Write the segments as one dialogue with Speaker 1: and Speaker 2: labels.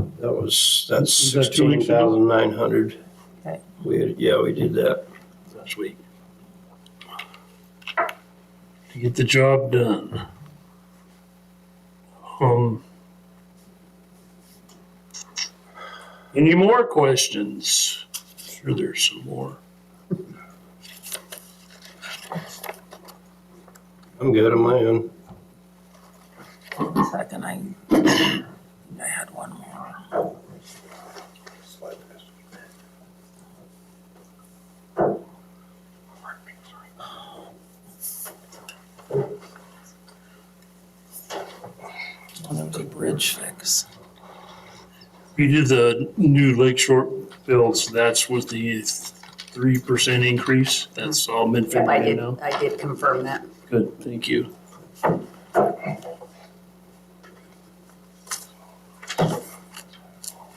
Speaker 1: was, that's
Speaker 2: Was that two
Speaker 1: sixteen
Speaker 2: weeks ago?
Speaker 1: thousand nine hundred.
Speaker 3: Okay.
Speaker 1: We, had- yeah, we did that.
Speaker 2: last week. To get the job done. Um. Any more questions? Sure, there's some more.
Speaker 1: I'm good on my own.
Speaker 3: Second, I, I had one more. Well, there was a bridge fix.
Speaker 2: We did the new Lake Shore bills, that's with the three percent increase, that's all been
Speaker 4: Yep, I
Speaker 2: figured in
Speaker 4: did,
Speaker 2: now?
Speaker 4: I did confirm that.
Speaker 2: Good, thank you.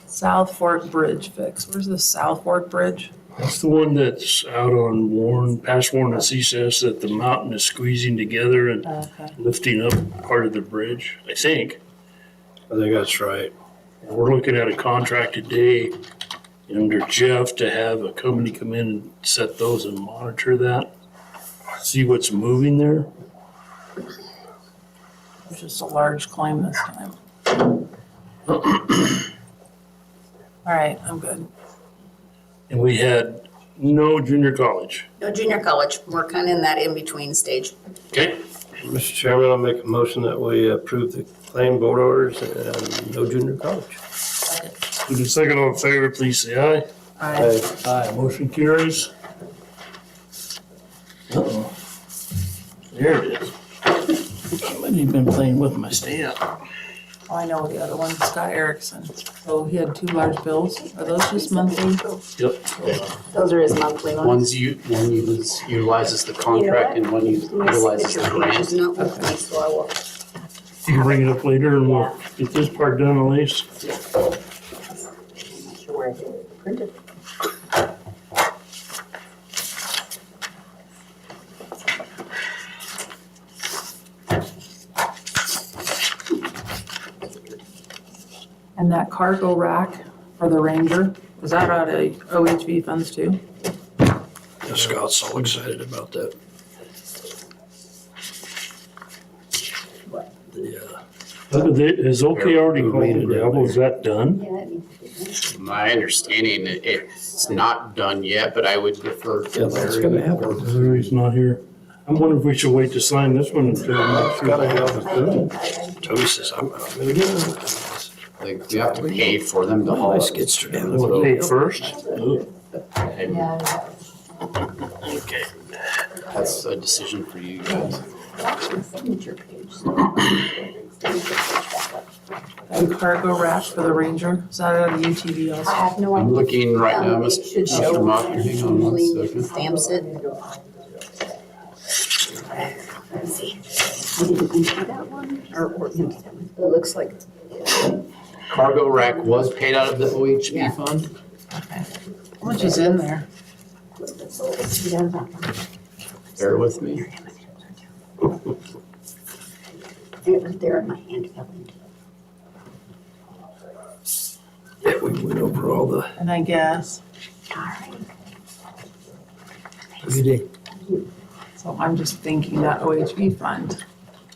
Speaker 3: South Fork Bridge fix. Where's the South Fork Bridge?
Speaker 2: That's the one that's out on Warren, past Warren and CSS, that the mountain is squeezing together and
Speaker 3: Okay.
Speaker 2: lifting up part of the bridge, I think.
Speaker 1: I think that's right.
Speaker 2: We're looking at a contract today under Jeff to have a company come in and set those and monitor that. See what's moving there.
Speaker 3: It's just a large claim this time. All right, I'm good.
Speaker 2: And we had no junior college.
Speaker 4: No, junior college, we're kind of in that in-between stage.
Speaker 2: Okay.
Speaker 1: Mr. Chairman, I'll make a motion that we approve the claim board orders and no junior college.
Speaker 2: With the second all in favor, please say aye.
Speaker 3: I
Speaker 1: Aye.
Speaker 2: Aye. Motion carries. Uh-oh. There it is. Somebody's been playing with my stamp.
Speaker 3: oh, I know the other one, Scott Erickson. So he had two large bills. Are those just monthly?
Speaker 2: Yep.
Speaker 4: Those are his monthly ones.
Speaker 5: One's you, one utilizes- utilizes the contract and one
Speaker 4: My
Speaker 5: utilizes the
Speaker 4: signature page
Speaker 5: grant.
Speaker 4: is not with me, so I will,
Speaker 2: You can bring it up later and we'll get this part done at least.
Speaker 4: I'm not sure where I did print it.
Speaker 3: And that cargo rack for the Ranger, is that out of OHV funds too?
Speaker 1: Yeah, Scott's all excited about that. The, uh,
Speaker 2: Look at that, Is OK already called gravel? Is that done?
Speaker 4: Yeah, it needs to be done.
Speaker 5: My understanding, it- it's not done yet, but I would refer
Speaker 1: Yeah,
Speaker 5: to
Speaker 1: that's gonna
Speaker 5: Larry.
Speaker 1: happen.
Speaker 2: Larry's not here. I'm wondering if we should wait to sign this one until.
Speaker 1: It's gotta happen.
Speaker 4: I-
Speaker 1: Toby says, I'm, I'm gonna get it.
Speaker 5: Like, you have to pay for them to haul
Speaker 1: Always
Speaker 5: it.
Speaker 1: gets to down.
Speaker 2: What, pay first?
Speaker 4: I-
Speaker 5: And
Speaker 4: yeah, I-
Speaker 2: Okay.
Speaker 5: that's a decision for you guys.
Speaker 4: That's my signature page. so I'll signature page back up.
Speaker 3: That cargo rack for the Ranger, is that out of UTV
Speaker 4: I
Speaker 3: also?
Speaker 4: have no
Speaker 5: I'm
Speaker 4: idea.
Speaker 5: looking right now,
Speaker 4: Um, it
Speaker 5: Mr.
Speaker 4: should show
Speaker 5: Mr. Mock, hang on one
Speaker 4: usually
Speaker 5: second.
Speaker 4: Stamps it. Let's see. I didn't enter that one, or, or, no, that one. it looks like
Speaker 5: Cargo rack was paid out of the OHP
Speaker 4: Yeah.
Speaker 5: fund?
Speaker 3: How much is in there?
Speaker 4: It
Speaker 5: Bear with me.
Speaker 4: was there in my hand. fell into it.
Speaker 1: Yeah, we went over all the.
Speaker 3: And I guess,
Speaker 4: Darn.
Speaker 1: Good day.
Speaker 3: so I'm just thinking that OHV fund,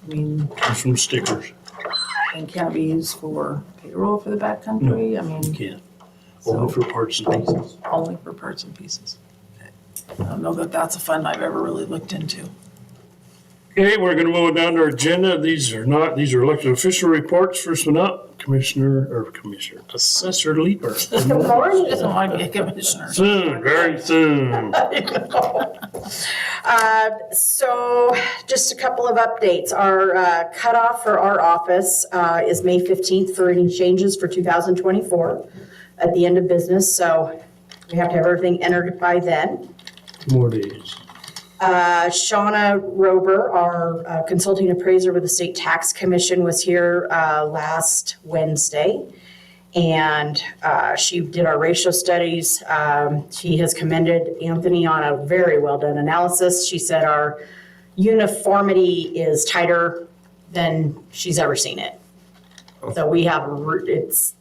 Speaker 3: I mean,
Speaker 2: Some stickers.
Speaker 3: and can't be used for payroll for the backcountry, I mean,
Speaker 2: Can't. Only
Speaker 3: so
Speaker 2: for parts and pieces.
Speaker 3: only for parts and pieces. I don't know that that's a fund I've ever really looked into.
Speaker 2: Okay, we're gonna move down to our agenda. These are not, these are elected official reports. First one up, Commissioner, or Commissioner, Assessor Leaper.
Speaker 3: Lauren doesn't want to be a commissioner.
Speaker 2: Soon, very soon.
Speaker 6: Uh, So just a couple of updates. Our uh, cutoff for our office uh, is May 15th for any changes for 2024 at the end of business, so we have to have everything entered by then.
Speaker 2: Two more days.
Speaker 6: Uh, Shauna Rober, our uh, consulting appraiser with the State Tax Commission, was here uh, last Wednesday. And uh, she did our ratio studies. Um, She has commended Anthony on a very well-done analysis. She said our uniformity is tighter than she's ever seen it. So we have, a re- it's